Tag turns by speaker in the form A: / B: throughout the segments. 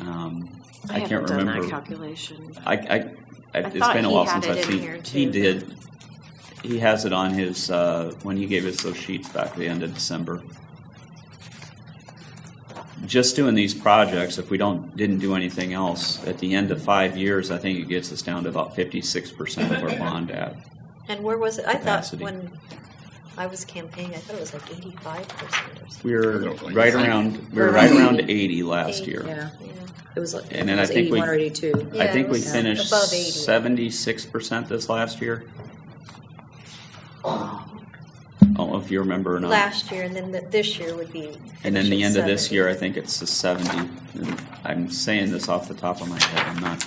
A: Um,
B: I
A: I
B: haven't
A: can't
B: done that
A: remember.
B: calculation.
A: I, I, I- it's
B: thought
A: been a
B: he
A: while
B: had
A: since
B: it
A: I've
B: in here,
A: seen. He
B: too.
A: did. He has it on his, uh, when he gave us those sheets back at the end of December. Just doing these projects, if we don't, didn't do anything else, at the end of five years, I think it gets us down to about fifty-six percent of our bond at.
C: And where was it? I thought
A: Capacity.
C: when I was campaigning, I thought it was like eighty-five percent or something.
A: We
D: I
A: were
D: don't think
A: right
D: it's-
A: around, we were right around eighty last
C: Eighty,
A: year.
B: Yeah,
C: Yeah.
B: it was, like-
A: And
B: it
A: then I
B: was
A: think we-
B: eighty-one or eighty-two.
A: I
C: Yeah,
A: think
C: it
A: we
C: was
A: finished
C: above 80.
A: seventy-six percent this last year. I don't know if you remember or not.
C: Last year, and then the- this year would be.
A: And then the
C: finish
A: end
C: at
A: of this
C: 70.
A: year, I think it's the seventy. And I'm saying this off the top of my head, I'm not,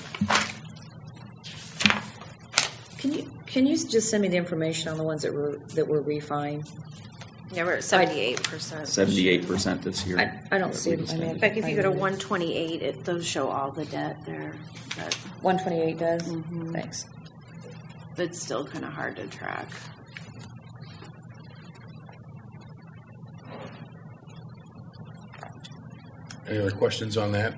B: Can you, can you just send me the information on the ones that were, that were refined?
C: Yeah, we're at seventy-eight percent.
A: seventy-eight percent this year.
B: I, I don't see
A: We
B: it. I
A: just
B: mean.
A: did.
C: In fact, if you go to one twenty-eight, it, those show all the debt there, but
B: One twenty-eight does?
C: Mhm.
B: Thanks.
C: it's still kind of hard to track.
D: Any other questions on that?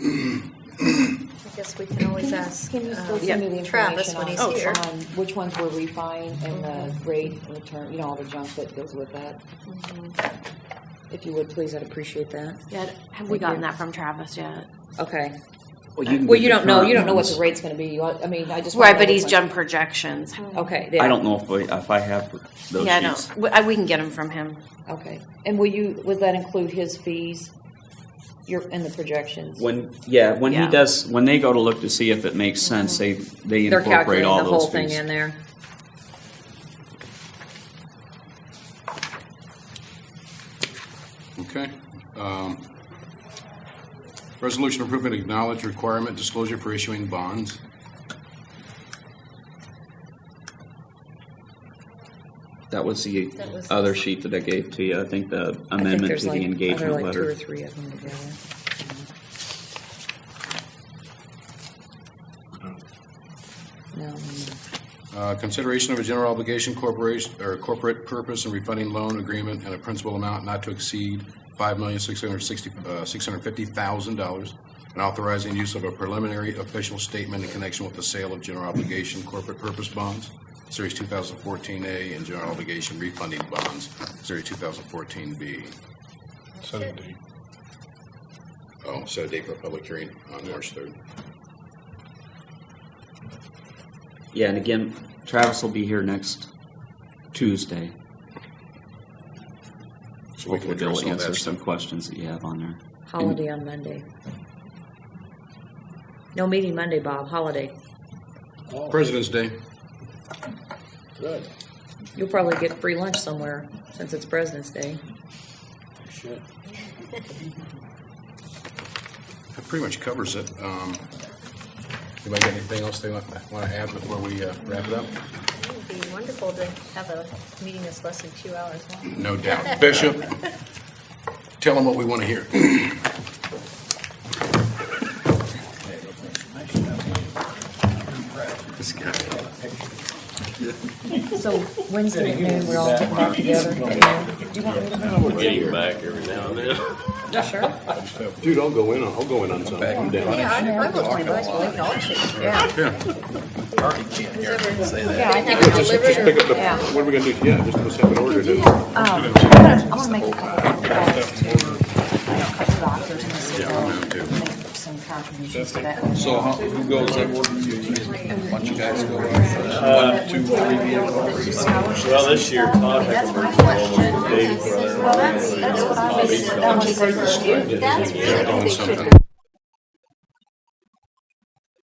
C: I guess we can always ask.
B: Can you
C: uh,
B: still send me the
C: Travis
B: information
C: when
B: on,
C: he's here. Mm-hmm.
B: on Oh, which ones were refined and the rate and the term, you know, all the junk that goes with that?
C: Mm-hmm.
B: If you would, please, I'd appreciate that.
C: Yeah, have
B: we
C: we gotten
B: gotten
C: that from Travis yet?
B: Okay.
A: can
B: Well,
A: do
B: you
A: the
B: don't know, you don't know what
A: current ones.
B: the rate's gonna be. You- I mean, I just. wanna
C: Right,
B: know
C: but
B: which
C: he's
B: one-
C: done projections.
B: Okay.
A: I
B: yeah.
A: don't know if, we- if I have those
C: Yeah, I
A: sheets.
C: know. We- I- We can get them from him.
B: Okay. And will you, was that include his fees? Your, in the projections?
A: When, yeah, when he
C: Yeah.
A: does, when they go to look to see if it makes sense, they, they
B: Mm-hmm. They're
A: incorporate
B: calculating
A: all
B: the
A: those
B: whole thing
A: fees.
B: in there.
D: Okay. Um, Resolution approving acknowledged requirement disclosure for issuing bonds.
A: That was the
C: That was-
A: other sheet that I gave to you. I think the
B: I think
A: amendment
B: there's
A: to the
B: like other
A: engagement
B: like two or
A: letter.
B: three of them together. No,
D: Uh, Consideration of a general obligation corporation, or corporate purpose and refunding loan agreement and a principal amount not to exceed five million six hundred sixty uh, $650,000 and authorizing use of a preliminary official statement in connection with the sale of general obligation corporate purpose bonds, Series 2014A, and general obligation refunding bonds, Series 2014B.
E: Seventy.
D: Oh, set a date for a public hearing on March 3rd.
A: Yeah, and again, Travis will be here next Tuesday.
D: So we can
A: Hopefully they'll
D: address all
A: answer
D: that
A: some
D: stuff.
A: questions that you have on there.
B: holiday on Monday. No meeting Monday, Bob, holiday.
D: President's Day.
E: Good.
B: You'll probably get free lunch somewhere since it's President's Day.
E: Shit.
D: That pretty much covers it. Um, Anybody got anything else they want want to add before we uh, wrap it up?
C: It would be wonderful to have a meeting that's less than two hours long.
D: No doubt. Bishop, tell them what we want to hear.
B: So Wednesday at noon, we're all getting back together. Do you want me to?
E: We're getting back every now and then.
B: Sure.
E: Dude, I'll go in, on- I'll go in on something. I'm down.
C: Yeah, I I will my voice, we'll acknowledge it.
B: Yeah. Yeah, I think
E: Just
B: we'll
E: just pick
B: deliver.
E: up the,
B: Yeah.
E: what are we gonna do? Yeah, just let's have it ordered. and-
B: I want to make a couple of calls to, I know, a couple of doctors in the city.
D: Yeah, I'm down too.
B: Make some contributions to that.
F: So how, who goes that work? Why don't you guys go? One, two, three, four.
E: Well, this year, contact information, date for
G: That's, that's what I was, that was.
D: They're doing something.